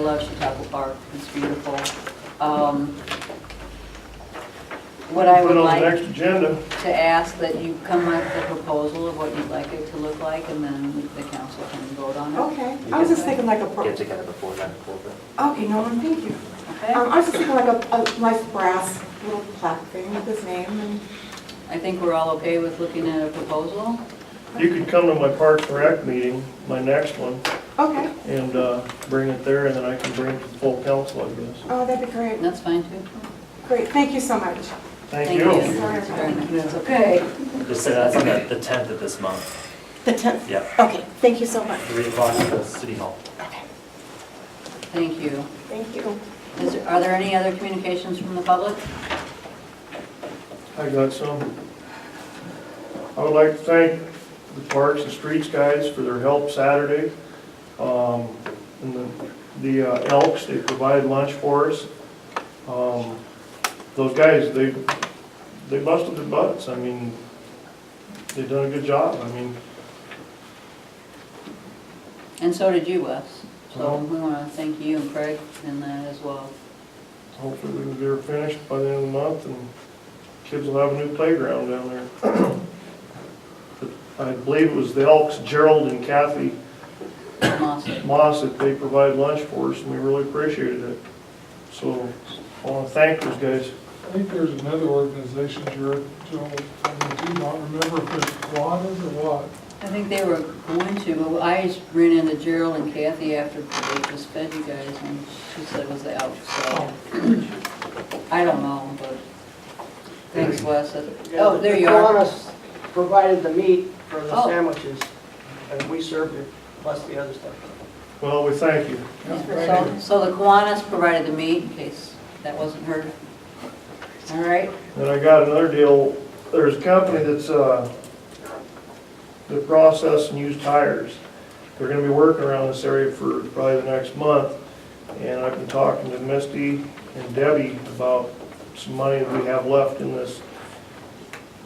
love Chautauqua Park, it's beautiful. Um, What I would Put on the like next agenda. to ask that you come up with a proposal of what you'd like it to look like, and then the council can vote on it. Okay, I was just thinking like a, pro- Get okay, together before that, before that. Norman, thank you. Okay? Um, I was just thinking like a, a nice brass little plaque thing with his name and, I think we're all okay with looking at a proposal. You could come to my Park and Rec meeting, my next one, okay, and uh, bring it there, and then I can bring it to the full council, I guess. oh, that'd be And great. That's fine, too. Great, thank you so much. Thank you. you. Sorry. That's okay. Just say that's on the the tenth of this month, The 10th, yeah, okay, thank you so much. three o'clock at the city hall. Thank you. Thank you. Is, there- are there any other communications from the public? I got some. I would like to thank the Parks and Streets guys for their help Saturday. Um, And the- the uh, Elks, they provided lunch for us. Um, Those guys, they, they busted their butts. I mean, they done a good job. I mean, And so did you, Wes. Uh-huh. So we want to thank you and Craig in that as well. Hopefully we can get her finished by the end of the month and kids will have a new playground down there. But I believe it was the Elks, Gerald and Kathy Awesome. Moss that they provided lunch for us and we really appreciated it. So I want to thank those guys. I think there's another organization, Jared, Joel, I do not remember if it's Quadas or what. I think they were going to, but I just ran into Gerald and Kathy after they just fed you guys, and she said it was out, so. I don't know, but thanks, Wes. Oh, there you are. Kiwanis provided the meat for the Oh. sandwiches, and we served it, plus the other stuff. Well, we thank you. So so the Kiwanis provided the meat, in case that wasn't heard. All right, And I got another deal. There's a company that's, uh, that process and use tires. They're gonna be working around this area for probably the next month. And I've been talking to Misty and Debbie about some money that we have left in this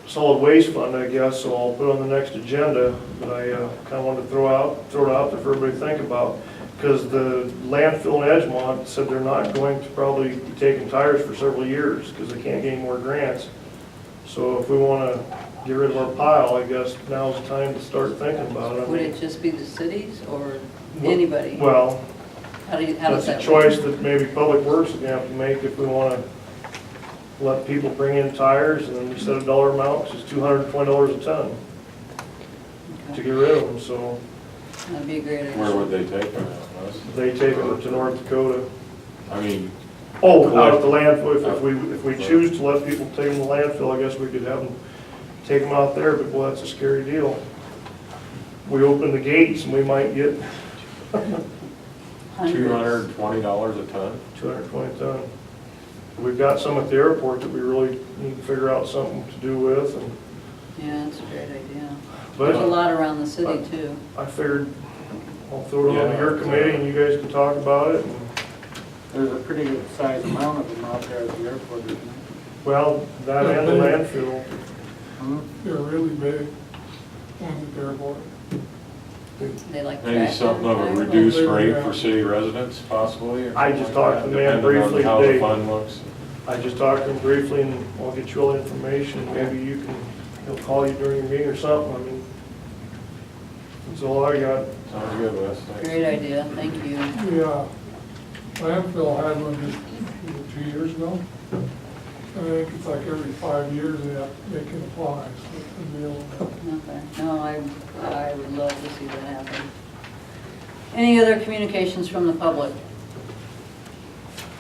solid waste fund, I guess, so I'll put it on the next agenda. But I, uh, kinda wanted to throw out, throw it out there for everybody to think about. Cause the landfill in Edgemont said they're not going to probably be taking tires for several years, cause they can't get any more grants. So if we wanna get rid of our pile, I guess now's the time to start thinking about it. I would mean, it just be the cities or Wh- anybody? Well, How do you, how does that's that? a choice that maybe Public Works is gonna have to make if we wanna let people bring in tires and then we set a dollar amount, which is two hundred and twenty dollars a ton Okay. to get rid of them, so That'd be a great Where idea. would they take them at, Wes? they take them to North Dakota. I mean, Oh, out at the landfill, if- if we, if we choose to let people take them to landfill, I guess we could have them take them out there, but well, that's a scary deal. We open the gates and we might get Hundreds. two hundred and twenty dollars a ton? two hundred and twenty ton. We've got some at the airport that we really need to figure out something to do with and Yeah, that's a great idea. There's a But lot around the city too. I figured I'll throw it on to your committee and you guys can talk about it. and- There's a pretty good sized amount of them out there at the airport, isn't Well, that and the landfill, there? They're really big, ones at the airport. They like. Maybe track something of a them. reduced rate for city residents possibly? or I just something like talked to that, the man depending on briefly How the today. fund looks. I just talked to him briefly and I'll get you all the information. Maybe you can, he'll call you during your meeting or something. I mean, that's all I got. Sounds good, Wes, thanks. Great idea, thank you. The uh, landfill had one just uh, two years ago. And I think it's like every five years they have, they can apply, so it's a deal. Okay. No, I, I would love to see that happen. Any other communications from the public?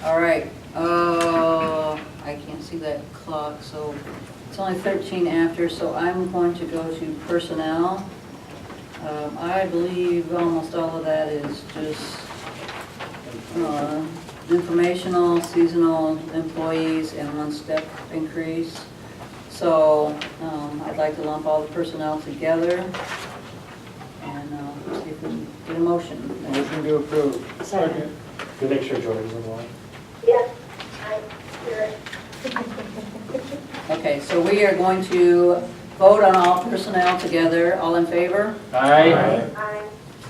All right, uh, I can't see that clock, so it's only thirteen after, so I'm going to go to personnel. Um, I believe almost all of that is just, uh, informational, seasonal employees and one step increase. So um, I'd like to lump all the personnel together and uh, see if we can get a motion. Motion to approve. Second. Good, make sure Jordan's in line. Yes, I hear it. Okay, so we are going to vote on all personnel together. All in favor? Aye. I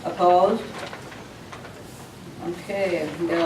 Opposed? Okay, we got a